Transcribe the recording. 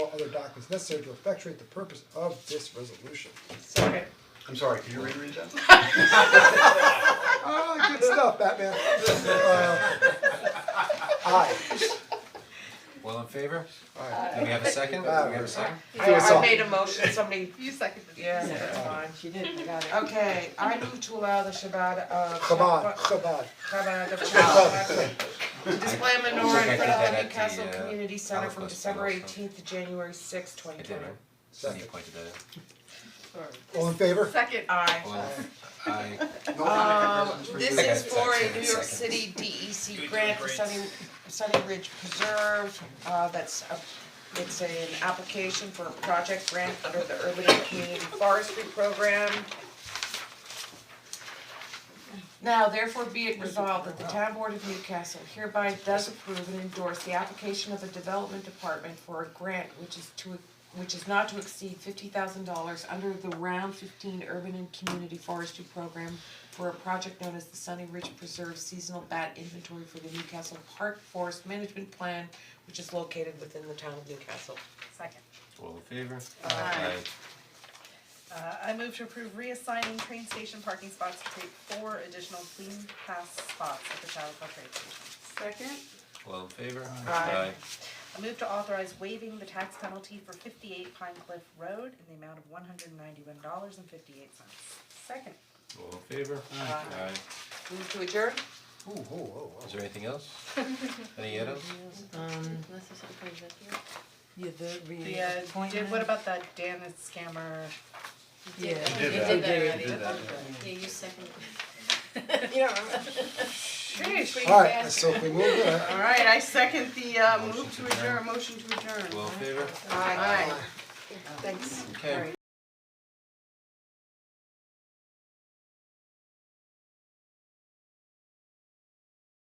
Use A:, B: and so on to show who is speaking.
A: other documents necessary to effectuate the purpose of this resolution.
B: Second.
C: I'm sorry, can you reread that?
A: Ah, good stuff, Batman. Uh, Aye.
D: All in favor?
A: Aye.
D: Do we have a second? Do we have a second?
B: I
A: us all.
B: I made a motion, somebody,
E: You seconded it.
B: yeah, that's fine.
F: She did, I got it.
B: Okay, I move to allow the Shabbat of.
A: Come on, come on.
B: Chabad of Shabbat. To display a menorah in
D: I
B: front
D: think I did
B: of
D: that
B: the
D: at the,
B: Newcastle
D: uh,
B: Community Center from
D: Holocaust
B: December
D: Memorial.
B: eighteenth to January sixth, twenty
D: I did,
B: twenty.
D: right? Cindy pointed that out.
A: All in favor?
E: Second.
B: Aye.
D: All in- Aye.
C: No other
B: Um,
C: presents
B: this
C: for you.
B: is for a New York
D: Second.
B: City DEC grant for Sunny, Sunny Ridge Preserve, uh, that's a, it's an application for a project grant under the Urban and Community Forestry Program. Now therefore be it resolved that the Town Board of Newcastle hereby does approve and endorse the application of the Development Department for a grant which is to, which is not to exceed fifty thousand dollars under the Round Fifteen Urban and Community Forestry Program for a project known as the Sunny Ridge Preserve Seasonal Bat Inventory for the Newcastle Park Forest Management Plan, which is located within the town of Newcastle.
E: Second.
D: All in favor?
E: Aye. Uh, I move to approve reassigning train station parking spots to create four additional clean pass spots at the Chalco train station.
F: Second?
D: All in favor?
B: Aye.
E: I move to authorize waiving the tax penalty for fifty-eight Pine Cliff Road in the amount of one hundred and ninety-one dollars and fifty-eight cents. Second.
D: All in favor? Aye.
B: Move to adjourn?
A: Ooh, whoa, whoa, whoa.
D: Is there anything else? Any others?
F: Yeah, the
E: The, uh, did, what about that Dan is scammer?
F: Yeah.
C: did that.
G: You did that already.
C: Did that, yeah.
G: Yeah, you seconded.
F: You don't remember?
B: Sheesh.
A: Alright, so if we move it, uh,
G: Alright, I second the uh
D: Motion
G: move
D: to
G: to
D: adjourn.
G: adjourn, motion to adjourn.
D: All in favor?
B: Aye. Thanks.
D: Okay.